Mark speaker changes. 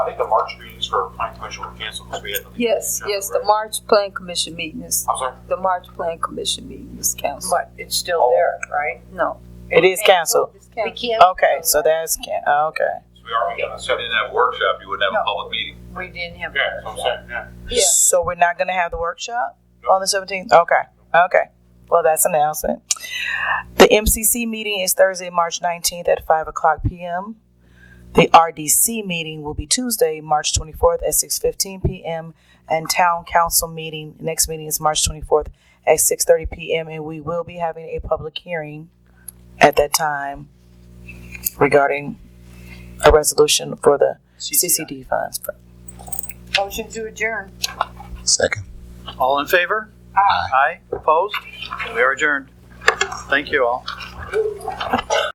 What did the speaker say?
Speaker 1: I think the March meetings for planning commission were canceled because we had. the-
Speaker 2: Yes, yes, the March Plan Commission meeting is,
Speaker 1: I'm sorry?
Speaker 2: the March Plan Commission meeting is canceled.
Speaker 3: But it's still there, right?
Speaker 2: No.
Speaker 4: It is canceled.
Speaker 2: It's
Speaker 3: We
Speaker 2: canceled.
Speaker 3: can't.
Speaker 4: Okay, so that's can, okay.
Speaker 1: So we are, yeah, so
Speaker 5: in that workshop, you wouldn't have a
Speaker 3: No.
Speaker 5: public meeting.
Speaker 3: We didn't have.
Speaker 1: that's what I'm saying, yeah.
Speaker 2: Yeah.
Speaker 4: So we're not gonna have the workshop on the seventeenth? Okay, okay. Well, that's an announcement. The MCC meeting is Thursday, March nineteenth at five o'clock PM. The RDC meeting will be Tuesday, March twenty-fourth at six fifteen PM. And town council meeting, next meeting is March twenty-fourth at six thirty PM. And we will be having a public hearing at that time regarding a resolution for the CCD funds.
Speaker 3: Motion to adjourn.
Speaker 6: Second.
Speaker 5: All in favor? Aye. Aye, opposed? We are adjourned. Thank you all.